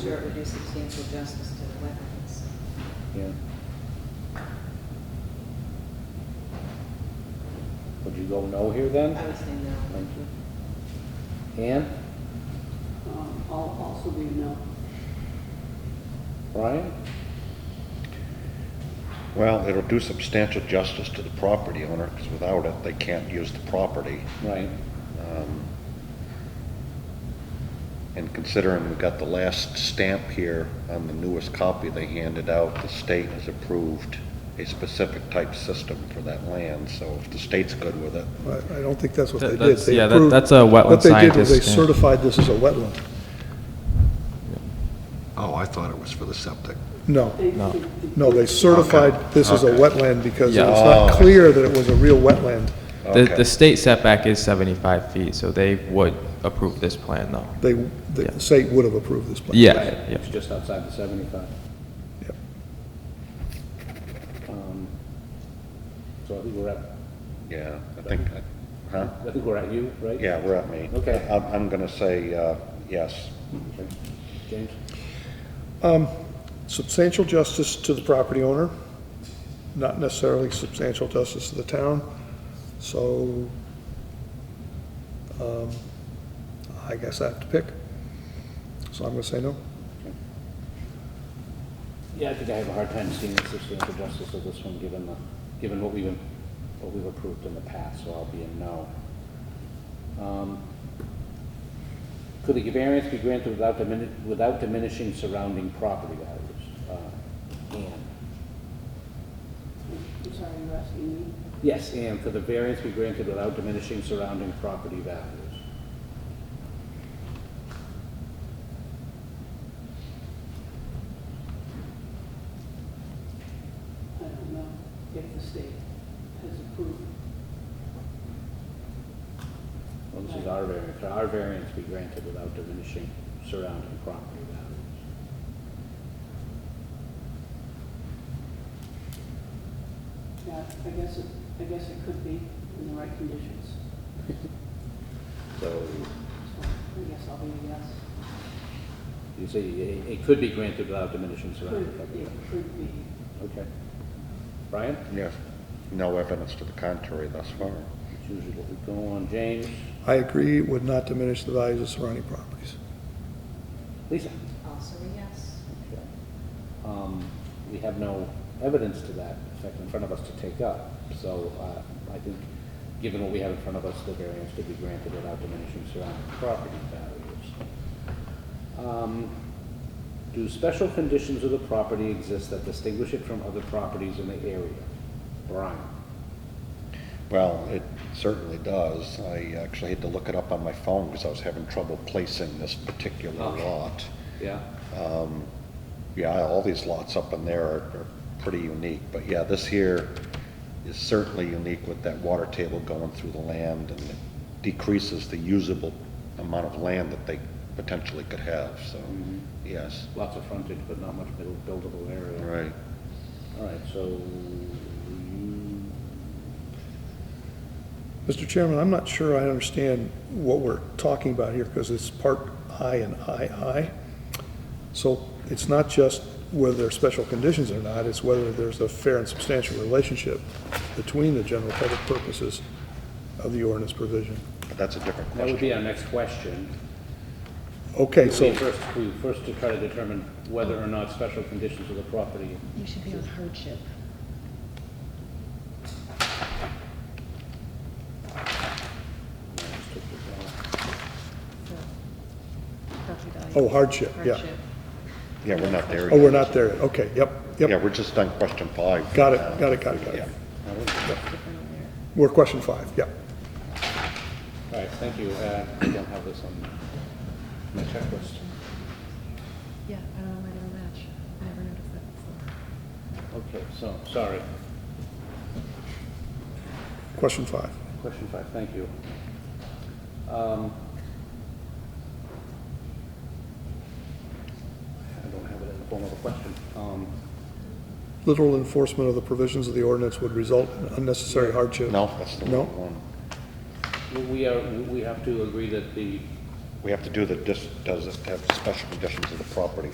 sure it would do substantial justice to the wetlands. Yeah. Would you go no here then? I would say no. Thank you. Ann, Um, I'll also be a no. Brian? Well, it'll do substantial justice to the property owner, because without it, they can't use the property. Right. Um, And considering we got the last stamp here on the newest copy they handed out, the state has approved a specific type system for that land, so if the state's good with it, I I don't think that's what That- they did. that's- They yeah, that- approved- that's a wetland What they did was they scientist, yeah. certified this as a wetland. oh, I thought it was for the septic. No, They- No. they- no, they certified this as a Okay. wetland because it Yeah. was Oh, I not see. clear that it was a real wetland. The, Okay. the state setback is 75 feet, so they would approve this plan, though. They, Yeah. the state would have approved this plan. Yeah, yeah. It's just outside the seventy-five. Yep. Um, So I think we're at, Yeah, I think, I- huh? I think we're at you, right? Yeah, we're at me. Okay. I'm, I'm gonna say, uh, yes. Okay. James? Substantial justice to the property owner, not necessarily substantial justice to the town. So, um, I guess I have to pick. So I'm going to say no. Yeah, I think I have a hard time seeing the substantial justice of this one, given the, given what we've, what we've approved in the past, so I'll be a no. Um, Could the variance be granted without dimin, without diminishing surrounding property values? Uh, Ann? I'm sorry, you're asking me? Yes, and could the variance be granted without diminishing surrounding property values? I don't know if the state has approved. Well, this is our variance, could our variance be granted without diminishing surrounding property values? Yeah, I guess, it- I guess it could be in the right conditions. So So I guess I'll be a yes. you say it it could be granted without diminishing surrounding Could, property it values? could be. Okay. Brian? Yes. No evidence to the contrary thus far. That's usually what we go on. James? I agree, it would not diminish the values of surrounding properties. Lisa? Also a yes. Okay. Um, We have no evidence to that effect in front of us to take up, so uh, I think, given what we have in front of us, the variance could be granted without diminishing surrounding property values. Um, Do special conditions of the property exist that distinguish it from other properties in the area? Brian? Well, it certainly does. I actually had to look it up on my phone because I was having trouble placing this particular Okay. lot. Yeah? Yeah, all these lots up in there are, are pretty unique, but yeah, this here is certainly unique with that water table going through the land and it decreases the usable amount of land that they potentially could have, so, Mm-hmm. yes. Lots of frontage, but not much buil- buildable area. All right. All right, so you, Mr. Chairman, I'm not sure I understand what we're talking about here, because it's part I and II. So it's not just whether there are special conditions or not, it's whether there's a fair and substantial relationship between the general public purposes of the ordinance provision. But that's a different that would question. be our next question. Okay, So so, first, we first to try to determine whether or not special conditions of the property, You should be on hardship. for property value. oh, hardship, yeah. Hardship. Yeah, we're not there yet. Oh, we're not there, yet. okay, yep, Yeah, yep. we're just on question five. Got it, got it, got it, got Yeah. it. Different on there. We're question five, yeah. all right, thank you, uh, I don't have this on my checklist. Yeah, I don't know why they don't match. I never noticed that before. Okay, so, sorry, Question five. question five, thank you. Um, I don't have it in the form of a question. Um, Literal enforcement of the provisions of the ordinance would result in unnecessary hardship. No, that's the No. wrong one. We are, we have to agree that the We have to do the, dis- does it have special conditions of the property